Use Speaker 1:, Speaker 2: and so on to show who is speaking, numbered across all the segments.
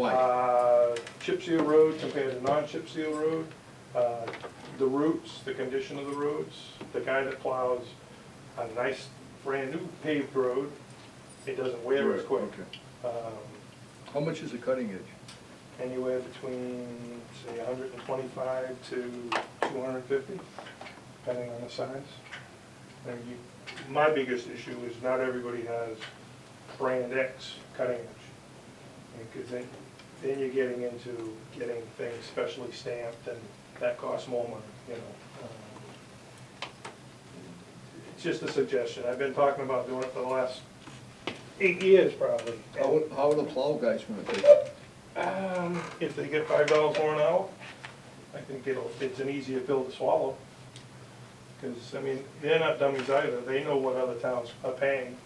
Speaker 1: Why?
Speaker 2: Uh, Chip seal road compared to non-chip seal road, uh, the routes, the condition of the roads. The guy that plows a nice, brand-new paved road, it doesn't wear as
Speaker 1: Right,
Speaker 2: quick.
Speaker 1: okay.
Speaker 2: Um,
Speaker 1: How much is the cutting edge?
Speaker 2: Anywhere between, say, 125 to 250, depending on the size. And you, my biggest issue is not everybody has brand X cutting edge. Because then, then you're getting into getting things specially stamped, and that costs more money, you know. Um, It's just a suggestion, I've been talking about doing it for the last eight years probably.
Speaker 1: How, how are the plow guys gonna take it?
Speaker 2: Um, If they get five dollars more an hour, I think it'll, it's an easier pill to swallow. Because, I mean, they're not dummies either, they know what other towns are paying,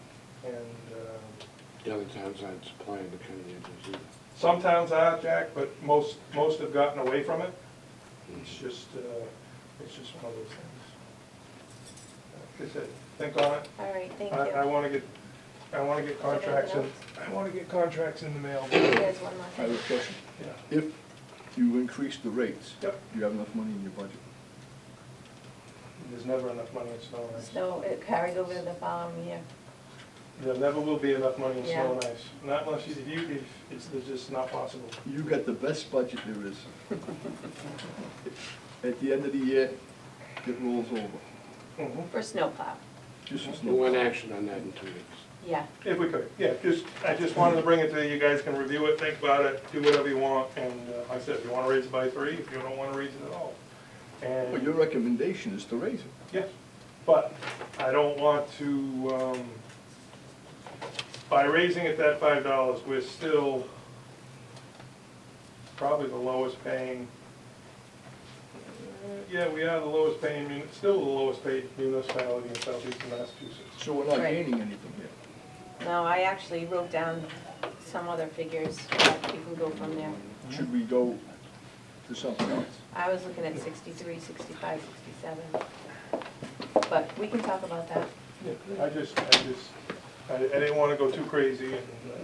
Speaker 2: and um,
Speaker 3: The other towns aren't supplying the cutting edges either.
Speaker 2: Some towns are, Jack, but most, most have gotten away from it. It's just, uh, it's just one of those things. Like I said, think on it.
Speaker 4: All right, thank
Speaker 2: I, I
Speaker 4: you.
Speaker 2: wanna get, I wanna get contracts in, I wanna get contracts in the mail. Yeah.
Speaker 4: There's one more
Speaker 1: I have
Speaker 4: thing.
Speaker 1: a question. If you increase the rates, do
Speaker 2: Yep,
Speaker 1: you have enough money in your budget?
Speaker 2: there's never enough money in snow and ice.
Speaker 4: So it carried over to the following year.
Speaker 2: There never will be enough money in snow
Speaker 4: Yeah.
Speaker 2: and ice. Not unless you, if you, if, it's, it's just not possible.
Speaker 1: You got the best budget there is. At the end of the year, it rolls over.
Speaker 2: Mhm.
Speaker 4: For snowplow,
Speaker 1: Just as
Speaker 3: We'll want
Speaker 1: no.
Speaker 3: action on that in two weeks.
Speaker 4: yeah.
Speaker 2: If we could, yeah, just, I just wanted to bring it to you, you guys can review it, think about it, do whatever you want, and uh, like I said, if you wanna raise it by three, if you don't wanna raise it at all.
Speaker 1: But your
Speaker 2: And,
Speaker 1: recommendation is to raise it.
Speaker 2: yes, but I don't want to, um, by raising it that five dollars, we're still probably the lowest paying. Uh, Yeah, we are the lowest paying, mun- still the lowest paid municipality in southeastern Massachusetts.
Speaker 1: So we're not
Speaker 4: Right.
Speaker 1: gaining anything here.
Speaker 4: No, I actually wrote down some other figures, but you can go from there.
Speaker 1: Should we go to something else?
Speaker 4: I was looking at 63, 65, 67. But we can talk about that.
Speaker 2: Yeah, I just, I just, I I didn't want to go too crazy and, uh,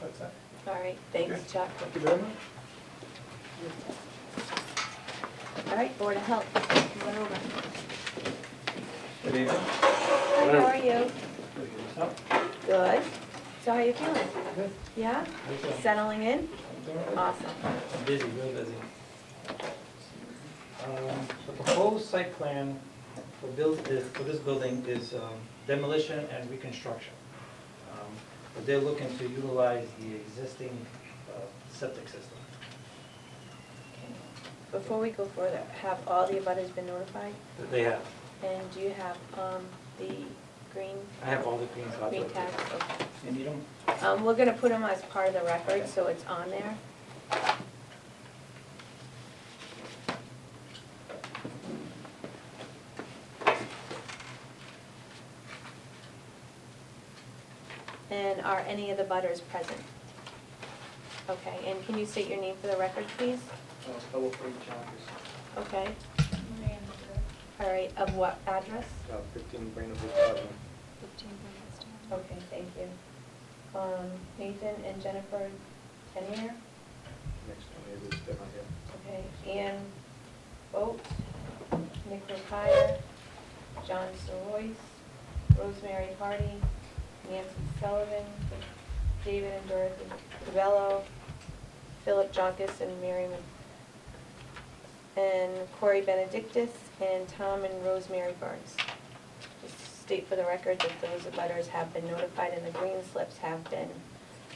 Speaker 2: that's that.
Speaker 4: All right, thanks, Chuck.
Speaker 2: Thank you very much.
Speaker 4: All right, Board of Health, come on over.
Speaker 5: Good evening.
Speaker 4: Hi, how are you? Good. So how you feeling?
Speaker 5: Good.
Speaker 4: Yeah? Settling in? Awesome.
Speaker 5: Busy, real busy. Um, The proposed site plan for build, is- for this building is um, demolition and reconstruction. Um, But they're looking to utilize the existing uh, septic system.
Speaker 4: Before we go further, have all the abutters been notified?
Speaker 5: that They have,
Speaker 4: And do you have, um, the green,
Speaker 5: I have all the green cards.
Speaker 4: green
Speaker 5: up there.
Speaker 4: tags? Okay.
Speaker 5: You need 'em?
Speaker 4: Um, we're gonna put them as part of the record, so it's on there. And are any of the butters present? Okay, and can you state your name for the record, please?
Speaker 6: Telephone Chalmers,
Speaker 4: Okay. All right, of what address?
Speaker 6: uh, fifteen Brandonwood Avenue.
Speaker 4: Okay, thank you. Um, Nathan and Jennifer Tennier,
Speaker 6: Next to me is Devon Hill.
Speaker 4: okay, Ann Boat, Nick Rapire, John Soroyce, Rosemary Hardy, Nancy Sullivan, David and Dorothy Cabello, Philip Jonkis and Mary Mc- and Corey Benedictus, and Tom and Rosemary Burns. Just state for the record that those letters have been notified and the green slips have been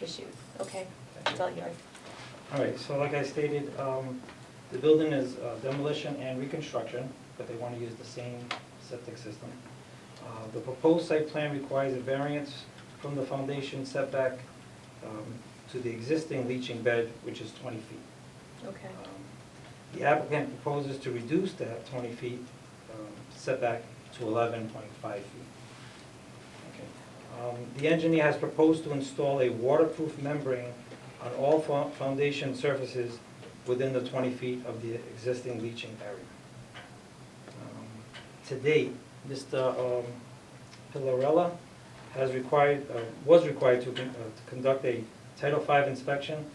Speaker 4: issued. Okay, it's all yours.
Speaker 5: All right, so like I stated, um, the building is uh, demolition and reconstruction, but they want to use the same septic system. Uh, The proposed site plan requires a variance from the foundation setback um, to the existing leaching bed, which is 20 feet.
Speaker 4: Okay.
Speaker 5: Um, The applicant proposes to reduce that 20 feet um, setback to 11.5 feet. Okay. Um, The engineer has proposed to install a waterproof membrane on all fo- foundation surfaces within the 20 feet of the existing leaching area. Um, To date, Mr. um, Pillarella has required, uh, was required to con- uh, to conduct a Title V inspection